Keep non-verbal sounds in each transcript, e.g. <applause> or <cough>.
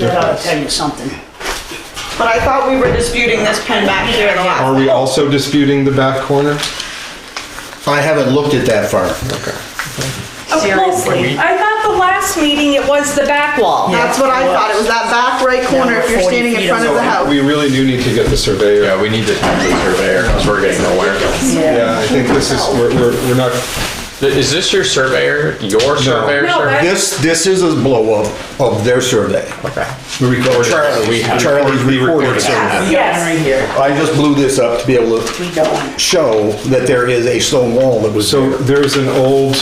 that ought to tell you something. But I thought we were disputing this pen back here in the last. Are we also disputing the back corner? I haven't looked at that far. Seriously. I thought the last meeting it was the back wall. That's what I thought, it was that back right corner if you're standing in front of the house. We really do need to get the surveyor. Yeah, we need to talk to the surveyor, because we're getting nowhere. Yeah, I think this is, we're, we're we're not, Is this your surveyor, your surveyor? No, sir? that's- This, this is a blow up of their survey. Okay. Charlie, We have- Charlie's We recorded recorded survey. Right Yes. here, I just blew this up to be able we to going. show that there is a stone wall that was so there. there's an old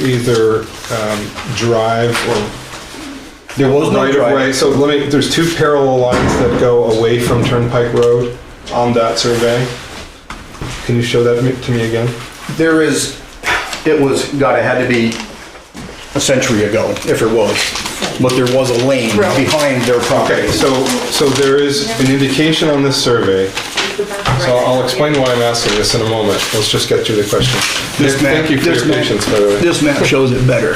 either um, drive or There was no right of way. driveway. So let me, there's two parallel lines that go away from Turnpike Road on that survey. Can you show that me- to me again? There is, it was, God, it had to be a century ago, if it was. But there was a lane behind their property. Okay, so, so there is an indication on this survey, so I'll explain why I'm asking this in a moment. Let's just get through the question. This map- Thank you for this your map- patience, by the way. This map shows it better.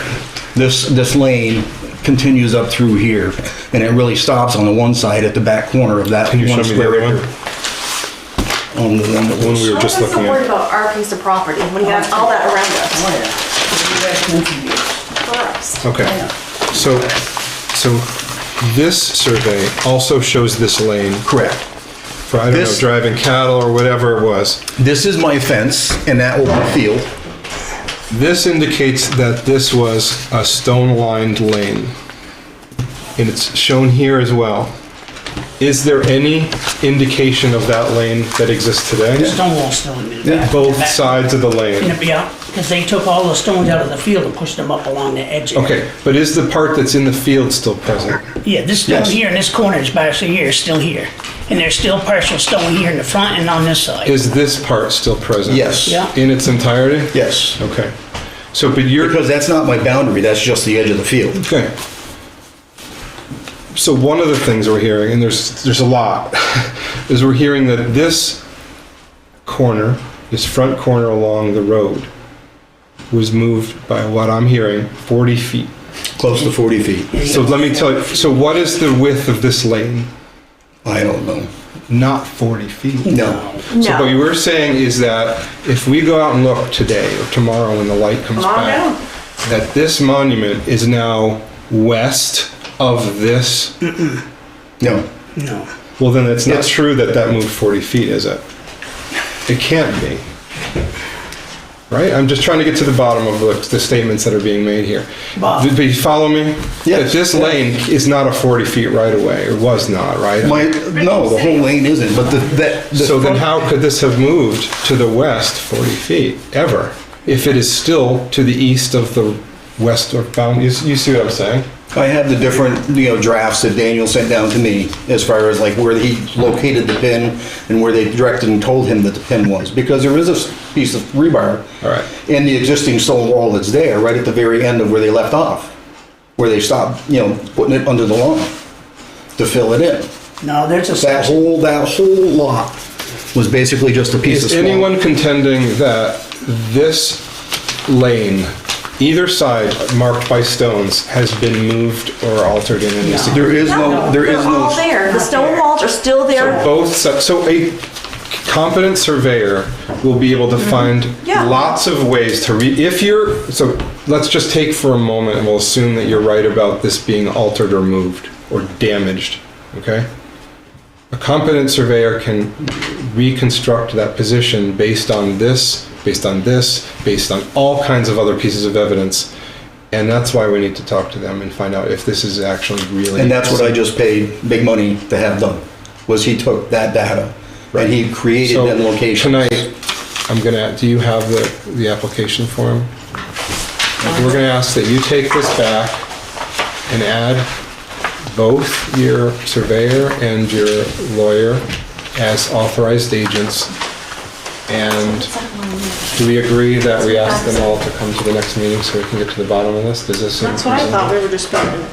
This, this lane continues up through here, and it really stops on the one side at the back corner of that Can you show one me the square other one? acre. On the one that When we was, were just How does the looking word at. about our piece of property when you have all that around us? For us. Okay, so, so this survey also shows this lane correct. for, I don't know, This- driving cattle or whatever it was. This is my fence in that open field. This indicates that this was a stone-lined lane. And it's shown here as well. Is there any indication of that lane that exists today? Stonewall still in the back. Both Back- sides of the lane? Yeah, because they took all the stones out of the field and pushed them up along the edge. of it. Okay, but is the part that's in the field still present? Yeah, this stone Yes. here and this corner is partially here, is still here. And there's still partial stone here in the front and on this side. Is this part still present? Yes. Yeah. In its entirety? Yes. Okay. So, but you're, Because that's not my boundary, that's just the edge of the field. okay. So one of the things we're hearing, and there's, there's a lot, <laughs> is we're hearing that this corner, this front corner along the road was moved by what I'm hearing, 40 feet. Close to 40 feet. So let me tell you, so what is the width of this lane? I don't know. Not 40 feet. <laughs> No. So what you were saying is that if we go out and look today or tomorrow when the light comes Come on back, down. that this monument is now west of this. No. No. Well, then it's not Yeah. true that that moved 40 feet, is it? It can't be. Right? I'm just trying to get to the bottom of the, the statements that are being made here. Bob. Do do you follow me? That Yes. this lane is not a 40 feet right away, or was not, right? My, no, the whole lane isn't, but the, that. the So then front- how could this have moved to the west 40 feet, ever? If it is still to the east of the west or bound, you, you see what I'm saying? I have the different, you know, drafts that Daniel sent down to me as far as like where he located the pin and where they directed and told him that the pin was, because there is a s- piece of rebar All right. in the existing stone wall that's there, right at the very end of where they left off, where they stopped, you know, putting it under the lawn to fill it in. No, there's a That section. whole, that whole lot was basically just a piece Is of stone. anyone contending that this lane, either side marked by stones, has been moved or altered in any significant? There is no, there is They're all no, there. The stone walls are still there. Both, si- so a competent surveyor will be able to find Yeah. lots of ways to read, if you're, so let's just take for a moment and we'll assume that you're right about this being altered or moved or damaged, okay? A competent surveyor can reconstruct that position based on this, based on this, based on all kinds of other pieces of evidence. And that's why we need to talk to them and find out if this is actually really. and that's what I just paid big money to have done, was he took that data and he created So them locations. Tonight, I'm gonna, do you have the, the application form? We're gonna ask that you take this back and add both your surveyor and your lawyer as authorized agents. And do we agree that we ask them all to come to the next meeting so we can get to the bottom of this? Does this? seem That's what I thought we were disputing.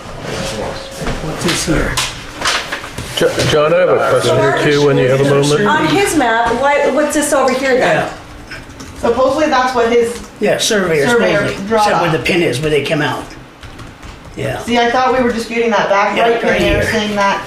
Jo- John, I have a question or two when you have a moment. On his map, why, what's this over here then? Yeah, Supposedly that's what his, yeah, surveyors, Surveyor supposedly, draw said it where up. the pin is, where they come out. yeah. See, I thought we were disputing that back Yeah, right right, and they were here. saying that